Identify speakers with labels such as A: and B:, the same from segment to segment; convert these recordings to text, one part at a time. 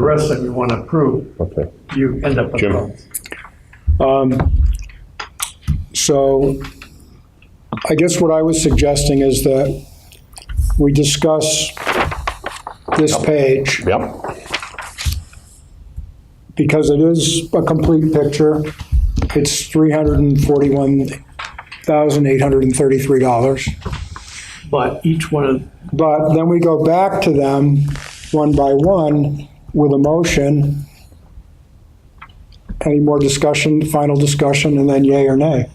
A: rest that you want to approve,
B: Okay.
A: you end up with
B: Jim.
A: problems.
C: Um, So I guess what I was suggesting is that we discuss this page
B: Yep.
C: because it is a complete picture. It's $341,833.
A: But each one of,
C: But then we go back to them one by one with a motion. Any more discussion, final discussion, and then yay or nay?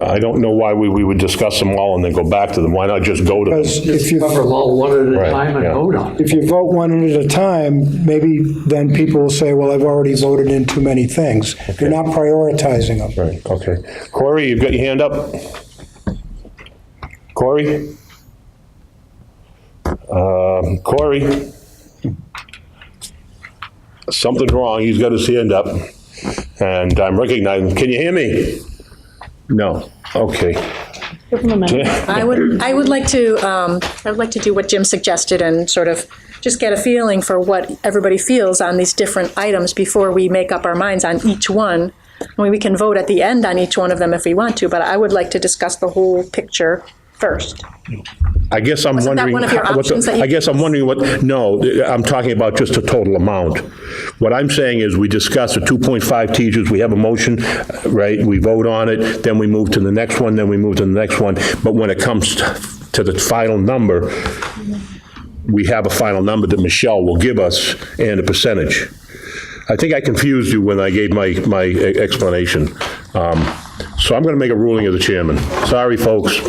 B: I don't know why we, we would discuss them all and then go back to them. Why not just go to
C: Because
B: them?
C: if you,
A: cover them all one at a
B: Right,
A: time and
B: yeah.
A: vote on it.
C: if you vote one at a time, maybe then people will say, well, I've already voted in too many things. You're not prioritizing them.
B: Right, okay. Corey, you've got your hand up? Corey? Um, Corey? Something's wrong. He's got his hand up. And I'm recognizing, can you hear me? No. Okay.
D: I would, I would like to, um, I would like to do what Jim suggested and sort of just get a feeling for what everybody feels on these different items before we make up our minds on each one. I mean, we can vote at the end on each one of them if we want to, but I would like to discuss the whole picture first.
B: I guess I'm
D: Wasn't that
B: wondering.
D: one of your
B: how- what the-
D: options that you-
B: I guess I'm wondering what, no, I'm talking about just the total amount. What I'm saying is, we discuss the 2.5 teachers, we have a motion, right? We vote on it, then we move to the next one, then we move to the next one. But when it comes to the final number, we have a final number that Michelle will give us and a percentage. I think I confused you when I gave my, my e, explanation. Um, So I'm going to make a ruling as the chairman. Sorry, folks.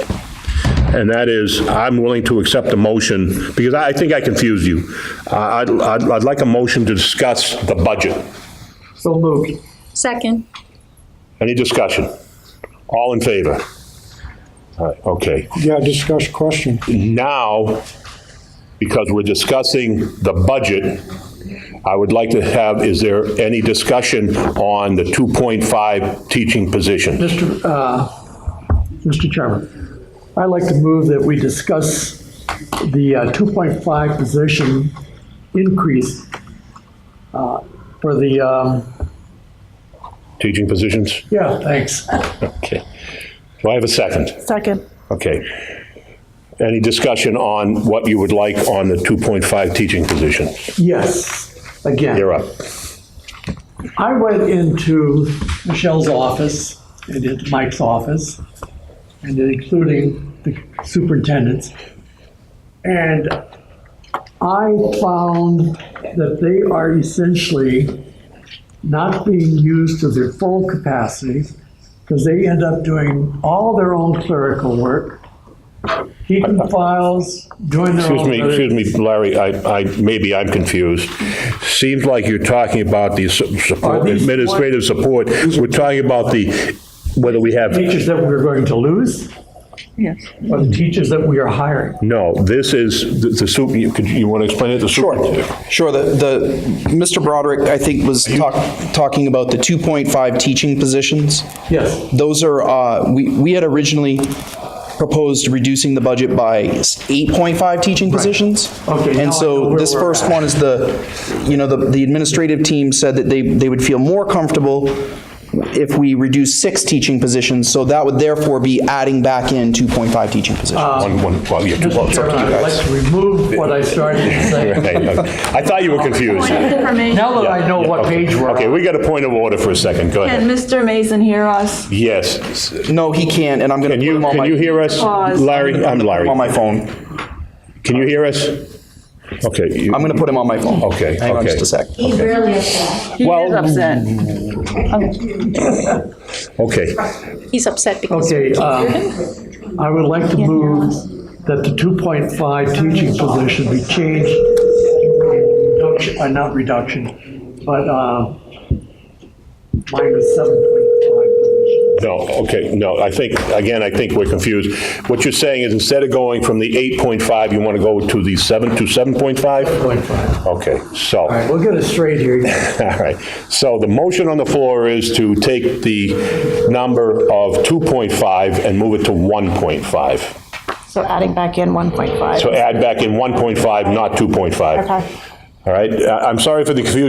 B: And that is, I'm willing to accept a motion, because I I think I confused you. I- I'd, I'd I'd like a motion to discuss the budget.
A: So moved.
D: Second.
B: Any discussion? All in favor? All right, okay.
C: Yeah, discuss question.
B: Now, because we're discussing the budget, I would like to have, is there any discussion on the 2.5 teaching position?
A: Mr. uh, Mr. Chairman, I'd like to move that we discuss the uh, 2.5 position increase uh, for the, um,
B: Teaching positions?
A: yeah, thanks.
B: Okay. Do I have a second?
D: Second.
B: Okay. Any discussion on what you would like on the 2.5 teaching position?
A: Yes, again.
B: You're up.
A: I went into Michelle's office and into Mike's office, and then including the superintendents. And I found that they are essentially not being used to their full capacity because they end up doing all their own clerical work, keeping files, doing their
B: Excuse
A: own.
B: me, excuse me, Larry, I, I, maybe I'm confused. Seems like you're talking about the su-
A: Are
B: support,
A: these
B: administrative support. We're talking about the, whether we have,
A: Teachers that we're going to lose? Yes. Or the teachers that we are hiring?
B: no, this is the- the soup, you, could you want to explain it? The
E: Sure,
B: superintendent.
E: sure. The, the, Mr. Broderick, I think, was talk, talking about the 2.5 teaching positions.
A: Yes.
E: Those are, uh, we, we had originally proposed reducing the budget by s- 8.5 teaching positions.
A: Okay, now I
E: And
A: know
E: so
A: where
E: this
A: we're
E: first
A: at.
E: one is the, you know, the, the administrative team said that they, they would feel more comfortable if we reduce six teaching positions, so that would therefore be adding back in 2.5 teaching positions.
A: Uh,
B: One, one, well, yeah, well,
A: Um, Mr.
B: it's up
A: Chairman,
B: to you
A: I'd like to remove what I started to say.
B: guys. Right, I thought you were confused.
A: Now that I know what
B: Okay,
A: page we're
B: Okay,
A: on.
B: we got a point of order for a second, go
F: Can
B: ahead.
F: Mr. Mason hear us?
B: Yes,
E: No, he can't, and I'm going
B: Can
E: to put
B: you,
E: him on
B: can
E: my-
B: you hear us?
F: Pause.
B: Larry, I'm Larry.
E: on my phone.
B: Can you hear us? Okay. you-
E: I'm going to put him on my phone.
B: Okay,
E: Hang on
B: okay.
E: just a sec.
F: He is upset.
B: Okay,
D: He's upset because
A: Okay, um, I would like to move that the 2.5 teaching position be changed, reduction- uh, not reduction, but um, minus 7.5 position.
B: no, okay, no, I think, again, I think we're confused. What you're saying is instead of going from the 8.5, you want to go to the 7, to 7.5?
A: 7.5.
B: Okay, so,
A: All right, we'll get it straight here.
B: all right. So the motion on the floor is to take the number of 2.5 and move it to 1.5.
G: So adding back in 1.5.
B: So add back in 1.5, not 2.5.
G: Okay.
B: All right, I- I'm sorry for the confusion.